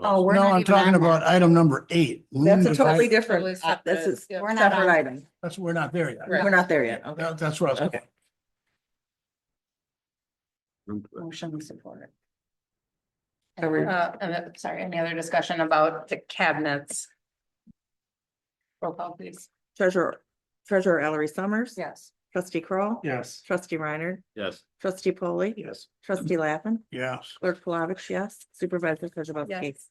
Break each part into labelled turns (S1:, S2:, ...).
S1: Oh, we're
S2: No,
S1: not
S2: I'm
S1: even
S2: talking
S1: on that.
S2: about item number eight.
S3: That's a
S2: Lumen-
S3: totally
S1: Totally
S3: different, uh, this
S1: separate.
S3: is
S1: Yeah. We're not
S3: separate
S1: on-
S3: item.
S2: That's, we're not there yet.
S1: Right.
S3: We're not there yet. Okay.
S2: That- That's where I was
S3: Okay.
S2: going.
S3: Motion we support it. Are we-
S1: Uh, uh, sorry, any other discussion about the cabinets? Roll call, please.
S3: Treasurer, Treasurer Ellery Summers.
S1: Yes.
S3: Trustee Kroll,
S2: Yes.
S3: Trustee Reiner.
S4: Yes.
S3: Trustee Polly.
S2: Yes.
S3: Trustee Lappin.
S2: Yes.
S3: Clerk Flavich, yes. Supervisor Kujabaski.
S1: Yes.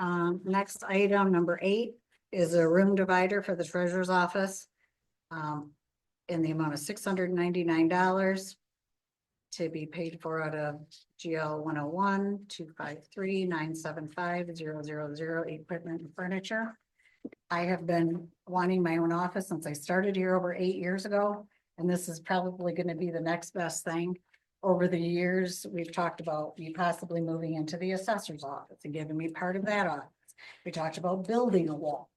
S5: Um, next item, number eight, is a room divider for the treasurer's office. um, in the amount of six hundred ninety-nine dollars. To be paid for out of GL one oh one, two five three, nine seven five, zero zero zero, equipment and furniture. I have been wanting my own office since I started here over eight years ago, and this is probably gonna be the next best thing over the years, we've talked about me possibly moving into the assessor's office and giving me part of that office. We talked about building a wall.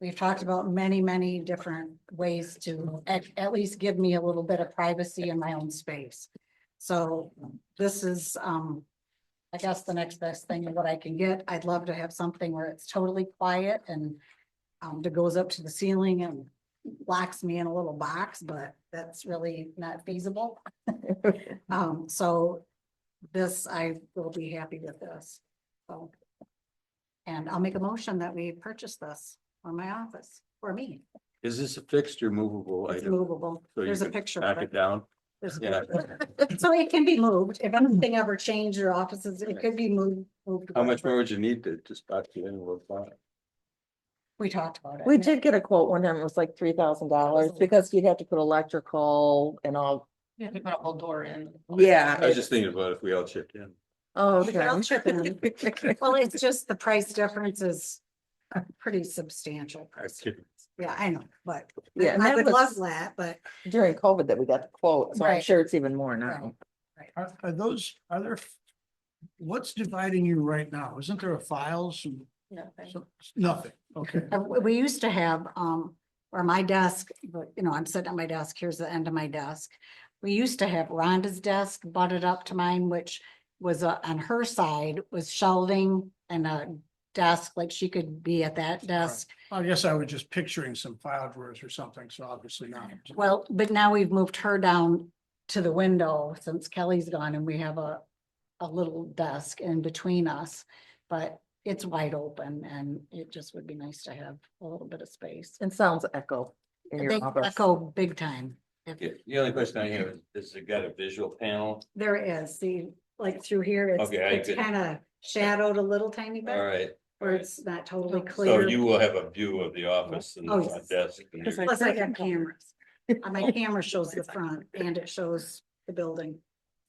S5: We've talked about many, many different ways to at, at least give me a little bit of privacy in my own space. So this is, um, I guess the next best thing of what I can get. I'd love to have something where it's totally quiet and um, that goes up to the ceiling and locks me in a little box, but that's really not feasible. Um, so this, I will be happy with this, so. And I'll make a motion that we purchase this for my office, for me,
S4: Is this a fixed or movable
S5: it's
S4: item?
S5: movable,
S4: So you
S5: there's a
S4: could
S5: picture
S4: Back
S5: of
S4: it
S5: it.
S4: down?
S5: There's a
S4: Yeah.
S5: picture. So it can be moved, if anything ever changed your offices, it could be moved. moved
S4: How much more
S5: wherever.
S4: would you need to just back the envelope on?
S5: We talked about it.
S3: We did get a quote one time, it was like three thousand dollars because you'd have to put electrical and all.
S1: You have to put a whole door in.
S3: Yeah.
S4: I was just thinking about if we all chipped in.
S3: Oh,
S5: We could all chip in.
S3: okay.
S5: Well, it's just the price difference is a pretty substantial.
S4: I was
S5: price.
S4: kidding.
S5: Yeah, I know, but
S3: Yeah, and
S5: I
S3: that
S5: would love
S3: was
S5: that, but
S3: during COVID that we got the quote, so I'm
S5: Right.
S3: sure it's even more now.
S2: Are, are those, are there, what's dividing you right now? Isn't there a files? and some- Nothing, okay.
S5: Uh, we we used to have, um, or my desk, but you know, I'm sitting at my desk, here's the end of my desk. We used to have Rhonda's desk butted up to mine, which was uh, on her side was shelving and a desk, like she could be at that desk.
S2: I guess I was just picturing some file drawers or something, so obviously not.
S5: Well, but now we've moved her down to the window since Kelly's gone and we have a, a little desk in between us. But it's wide open and it just would be nice to have a little bit of space.
S3: It sounds echo in
S5: They
S3: your office.
S5: echo big time. If-
S4: Yeah, The only question I have is, is it got a visual panel?
S5: There is, see, like through here, it's,
S4: Okay, I
S5: it's
S4: could-
S5: kind of shadowed a little tiny
S4: All
S5: bit,
S4: right.
S5: where it's not totally
S4: So
S5: clear.
S4: you will have a view of the office and
S5: Oh,
S4: the front desk. and your-
S5: Plus I got cameras. Uh, My camera shows the front and it shows the building.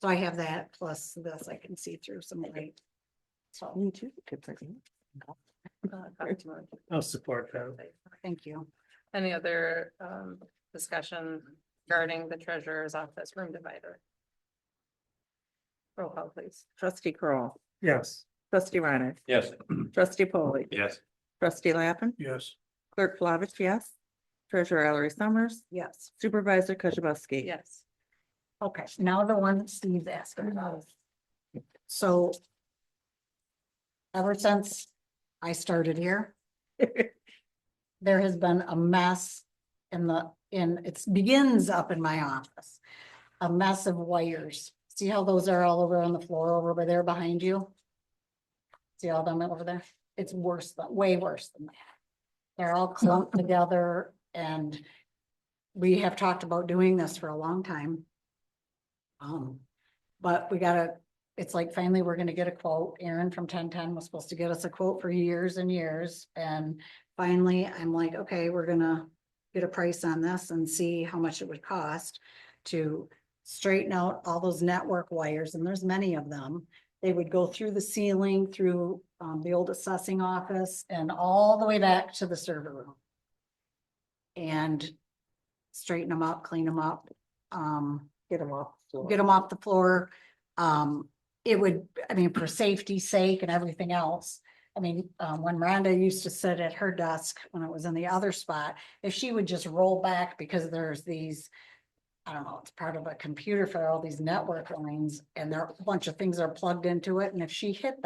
S5: So I have that plus this, I can see through some light. So,
S3: You too. could put in.
S1: uh,
S2: I'll support that.
S5: thank you.
S1: Any other um discussion regarding the treasurer's office room divider? Roll call, please.
S3: Trustee Crawl,
S2: Yes.
S3: trustee Reiner,
S4: Yes.
S3: trustee Polly,
S4: Yes.
S3: trustee Lappin,
S2: Yes.
S3: clerk Flavich, yes. Treasurer Ellery Summers,
S5: Yes,
S3: supervisor Kujabaski.
S1: Yes.
S5: okay, now the one that Steve's asking about. So ever since I started here, there has been a mess in the, in, it begins up in my office. A mess of wires. See how those are all over on the floor over by there behind you? See all them over there? It's worse, than way worse than that. They're all clumped together and we have talked about doing this for a long time. Um, but we gotta, it's like finally we're gonna get a quote. Aaron from ten ten was supposed to get us a quote for years and years and finally, I'm like, okay, we're gonna get a price on this and see how much it would cost to straighten out all those network wires, and there's many of them. They would go through the ceiling, through um, the old assessing office, and all the way back to the server room. And straighten them up, clean them up, um,
S3: Get them off. the floor.
S5: get them off the floor. Um, it would, I mean, for safety's sake and everything else. I mean, um, when Miranda used to sit at her desk when it was in the other spot, if she would just roll back because there's these. I don't know, it's part of a computer for all these network lines and there are a bunch of things are plugged into it. And if she hit